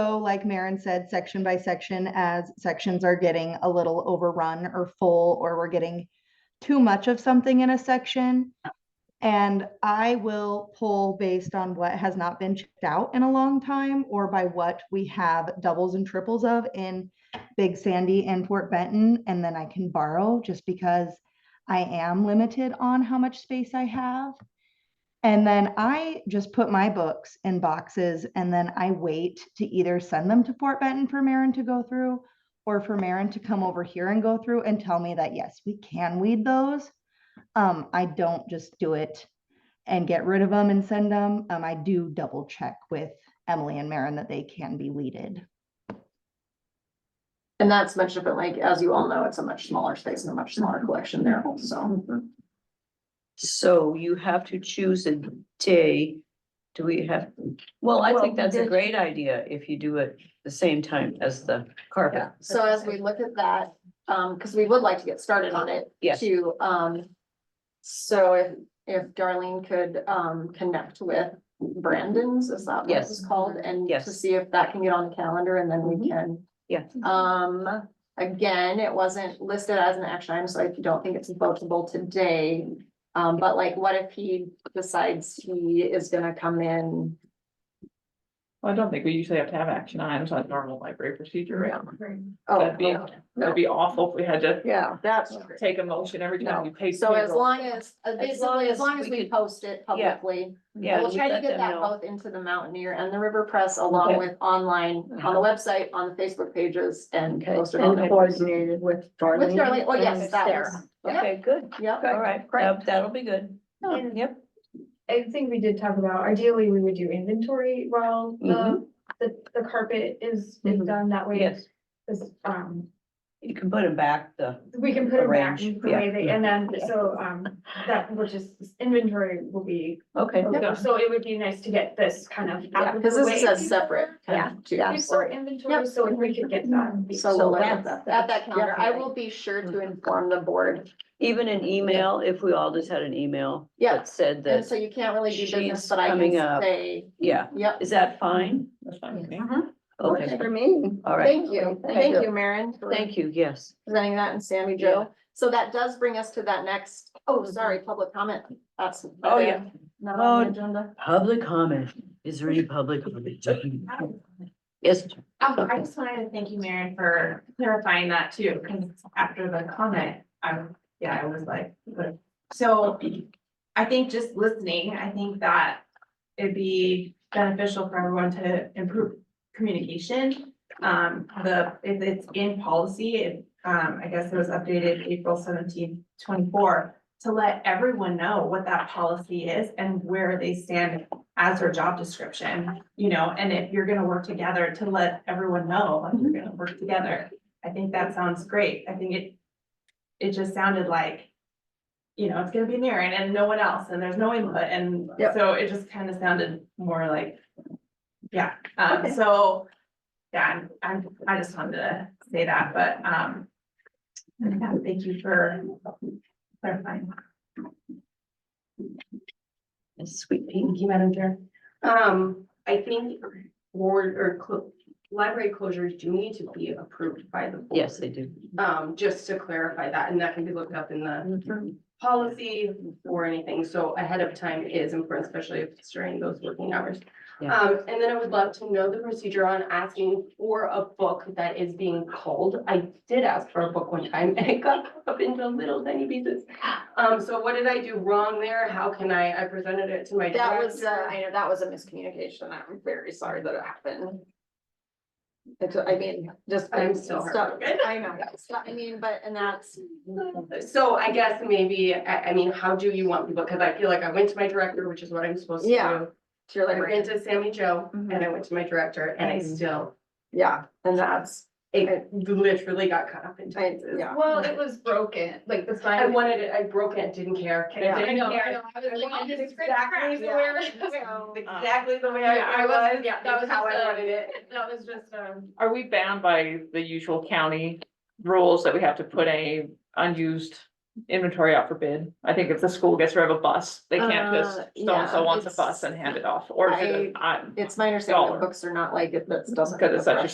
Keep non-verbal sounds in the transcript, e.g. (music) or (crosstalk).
So like Maren said, section by section, as sections are getting a little overrun or full, or we're getting too much of something in a section. And I will pull based on what has not been checked out in a long time or by what we have doubles and triples of in Big Sandy and Fort Benton. And then I can borrow just because I am limited on how much space I have. And then I just put my books in boxes and then I wait to either send them to Fort Benton for Marin to go through or for Marin to come over here and go through and tell me that, yes, we can weed those. Um, I don't just do it and get rid of them and send them. Um, I do double check with Emily and Marin that they can be weeded. And that's much different, like, as you all know, it's a much smaller space and a much smaller collection there, so. So you have to choose a day. Do we have, well, I Well, think that's a did- great idea if you do it the same time as the carpet. Yeah, so as we look at that, um, because we would like to get started on it. Yes. too. um, so if, if Darlene could, um, connect with Brandon's, is that what Yes. it's called? And Yes. to see if that can get on the calendar and then we Mhm. can. Yeah. Um, again, it wasn't listed as an action item, so I don't think it's votable today. Um, but like, what if he decides he is gonna come in? Well, I don't think we usually have to have action items on normal library procedure, right? Oh, That'd be- no, That'd be awful if we had to yeah, that's true. take a motion every time you pay. So as payroll. long as, uh, basically, as long as we could- post it Yeah. publicly, Yeah, we'll we try to let get them that know. both into the Mountaineer and the River Press along Okay. Uh-huh. with online, on the website, on the Facebook pages and Okay. post it on And there. coordinated with With Darlene. Darlene, oh, yes, and that Sarah. was, yeah, Okay, good. yeah. All right, that- that'll be good. Oh. And- Yep, I think we did talk about ideally we would do inventory while the, Mm-hmm. Mhm. the, the carpet is, is Mhm. done that way. yes. This, um, You can put them back, the, we can put it back Arrange, the way they, and then, so, um, that will just, inventory will be. okay, Yeah. So it would be nice to get this kind of. out of Because the this is way a separate. kind of, too, before- Before so- inventory, so if we could get that. So So we'll look at that's- that, at that calendar. I will be sure to Mm-hmm. inform the board. even an email, if we all just had an email. Yeah. that Said And that, so you can't really do business, she's but I can coming up. say, yeah, yep. is that fine? That's fine with me. Okay, Works For me. all right, Thank you, Thank thank you. you, Maren. for- thank you, yes. presenting that and Sammy Yeah. Mm-hmm. Joe. So that does bring us to that next, oh, sorry, public comment. That's. Oh, yeah. Not on the Oh. agenda. Public comment, is there any public comment? Yes, Um, I just wanted to thank you, Maren, for clarifying that too, because after the comment, I'm, yeah, I was like, what? so I think just listening, I think that it'd be beneficial for everyone to improve communication. Um, the, if it's in policy, it, um, I guess it was updated April seventeenth, twenty-four, to let everyone know what that policy is and where they stand as their job description you know, and if you're gonna work together, to let everyone know, like, you're gonna work together. I think that sounds great. I think it, it just sounded like, you know, it's gonna be Maren and no one else, and there's no input, and Yep. so it just kind of sounded more like, yeah, um, so, yeah, I'm- I'm, I just wanted to say that, but, um, yeah, thank you for clarifying. sweet pea. Thank you, Madam Chair. Um, I think board or clo- library closures do need to be approved by the. board. Yes, they do. Um, just to clarify that, and that can be looked up in the policy or anything, so ahead of time is important, especially if it's during those working hours. Yeah. Um, and then I would love to know the procedure on asking for a book that is being called. I did ask for a book one time and it got (laughs) cut up into little tiny pieces. Um, so what did I do wrong there? How can I, I presented it to my That director. was, uh, I know, that was a miscommunication. I'm very sorry that it happened. It's, I mean, just. I'm still stuff. heartbroken. I know, stuff, I mean, but, and that's, So I guess maybe, I, I mean, how do you want people, cause I feel like I went to my director, which is what I'm supposed to Yeah. do. you're I like, went to Sammy Joe Mhm. and I went to my director and I Mhm. still, yeah, and that's, it literally got cut up into I- pieces. yeah. Well, it was broken, like the I sign. wanted it, I broke it, didn't care. I Yeah. didn't care. wanted It's Exactly (laughs) the way, (laughs) So, exactly the way Yeah, I I it wasn't- was, yeah, that that's was how just I a- wanted it. That was just, um. Are we bound by the usual county rules that we have to put any unused inventory out for bid? I think if the school gets rid of a bus, they can't just, Uh, so-and-so yeah, wants a it's- bus and hand it off, or is it, a- I- It's my understanding Dollar. that books are not like, it. that doesn't. Because it's such a